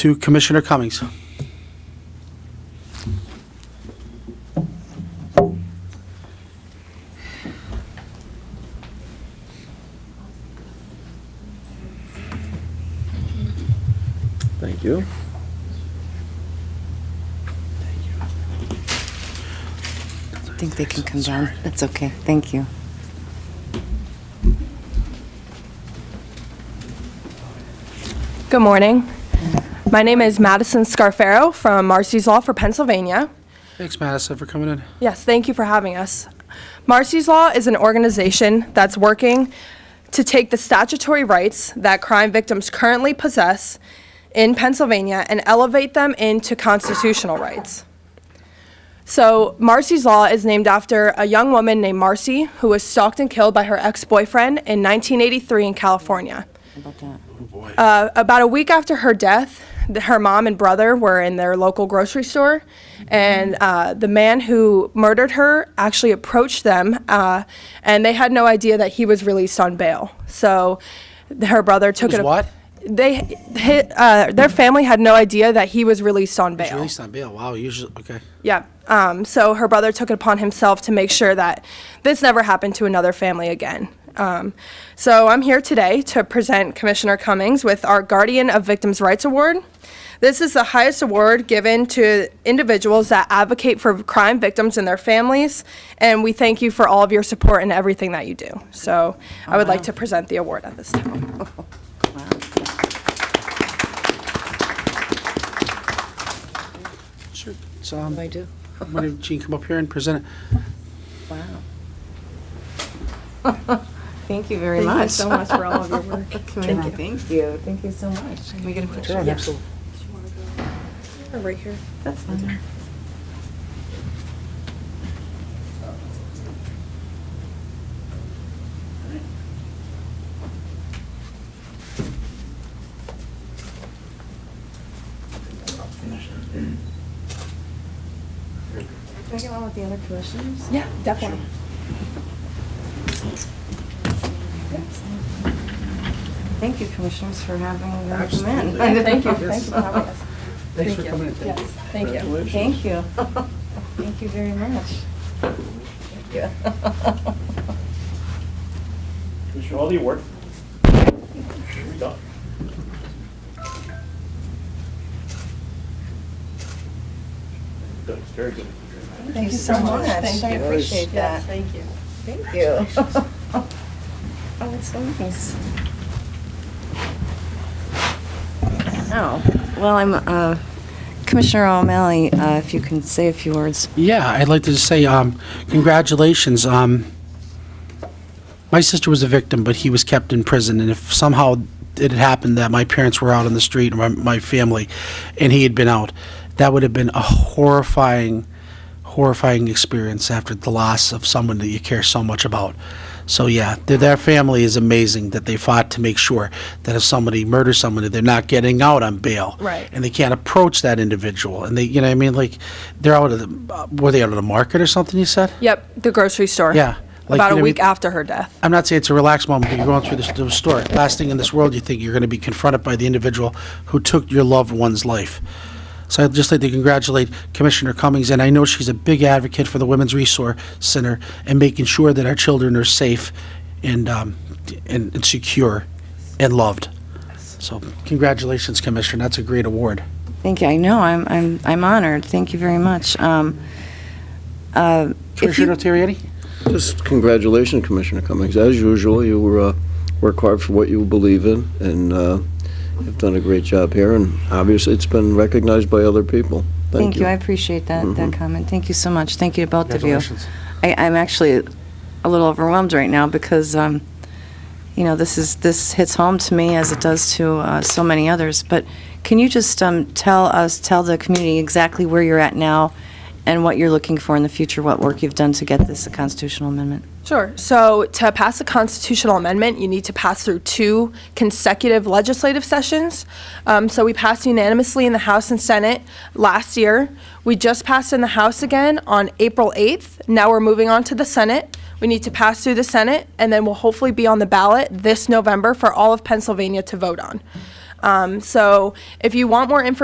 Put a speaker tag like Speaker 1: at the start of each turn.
Speaker 1: to Commissioner Cummings.
Speaker 2: Thank you.
Speaker 3: I think they can come down. That's okay. Thank you.
Speaker 4: Good morning. My name is Madison Scarfaro from Marcy's Law for Pennsylvania.
Speaker 1: Thanks, Madison, for coming in.
Speaker 4: Yes, thank you for having us. Marcy's Law is an organization that's working to take the statutory rights that crime victims currently possess in Pennsylvania and elevate them into constitutional rights. So, Marcy's Law is named after a young woman named Marcy who was stalked and killed by her ex boyfriend in 1983 in California. Uh, about a week after her death, th- her mom and brother were in their local grocery store, and uh, the man who murdered her actually approached them, uh, and they had no idea that he was released on bail. So th- her brother took
Speaker 1: was
Speaker 4: it. up-
Speaker 1: what?
Speaker 4: They, hi uh, their family had no idea that he was released on bail.
Speaker 1: Released on bail, wow, usually, okay.
Speaker 4: Yeah. Um, so her brother took it upon himself to make sure that this never happened to another family again. Um, so I'm here today to present Commissioner Cummings with our Guardian of Victims' Rights Award. This is the highest award given to individuals that advocate for crime victims and their families, and we thank you for all of your support and everything that you do. So I would like to present the award at this time.
Speaker 1: Sure, so, um,
Speaker 3: I do.
Speaker 1: why don't Gene come up here and present it?
Speaker 3: Wow. Thank you very much. Thank you so much for all of your work. Thank you. Thank you so much. Can we get a picture? Yeah.
Speaker 4: Right here.
Speaker 3: That's fine. Can I get one with the other commissioners?
Speaker 4: Yeah, definitely.
Speaker 3: Thank you, commissioners, for having them come in.
Speaker 2: Absolutely.
Speaker 4: Thank you. Thank you for having us.
Speaker 1: Thanks for coming in.
Speaker 4: Yes, thank you.
Speaker 3: Thank you. Thank you very much.
Speaker 5: Commissioner Hall, the award. Here we go. Good, very good.
Speaker 3: Thank you so much. Thank you. I appreciate that. Thank you. Thank you. Oh, it's so nice. Oh, well, I'm, uh, Commissioner O'Malley, uh, if you can say a few words.
Speaker 1: Yeah, I'd like to just say, um, congratulations. Um, my sister was a victim, but he was kept in prison, and if somehow it had happened that my parents were out on the street, or my, my family, and he had been out, that would have been a horrifying, horrifying experience after the loss of someone that you care so much about. So yeah, their, their family is amazing that they fought to make sure that if somebody murders somebody, they're not getting out on bail.
Speaker 4: Right.
Speaker 1: And they can't approach that individual, and they, you know, what I mean, like, they're out of the, uh, were they out of the market or something? You said.
Speaker 4: Yep, the grocery store.
Speaker 1: Yeah, like,
Speaker 4: About
Speaker 1: you
Speaker 4: a
Speaker 1: know,
Speaker 4: week
Speaker 1: we-
Speaker 4: after her death.
Speaker 1: I'm not saying it's a relaxed moment, but you're going through this, the story. Last thing in this world, you think you're going to be confronted by the individual who took your loved one's life. So I'd just like to congratulate Commissioner Cummings, and I know she's a big advocate for the Women's Resource Center and making sure that our children are safe and, um, and, and secure and loved. So congratulations, Commissioner. That's a great award.
Speaker 3: Thank you. I know, I'm, I'm, I'm honored. Thank you very much. Um, uh, if you-
Speaker 1: Commissioner Terrietti?
Speaker 2: Just congratulations, Commissioner Cummings. As usual, you uh, work hard for what you believe in, and uh, you've done a great job here, and obviously, it's been recognized by other people.
Speaker 3: Thank you, I appreciate that, that comment. Thank you so much. Thank you to both of you. I, I'm actually a little overwhelmed right now because, um, you know, this is, this hits home to me as it does to, uh, so many others. But can you just, um, tell us, tell the community exactly where you're at now and what you're looking for in the future, what work you've done to get this a constitutional amendment?
Speaker 4: Sure. So to pass a constitutional amendment, you need to pass through two consecutive legislative sessions. Um, so we passed unanimously in the House and Senate last year. We just passed in the House again on April 8th. Now we're moving on to the Senate. We need to pass through the Senate, and then we'll hopefully be on the ballot this November for all of Pennsylvania to vote on. Um, so if you want more information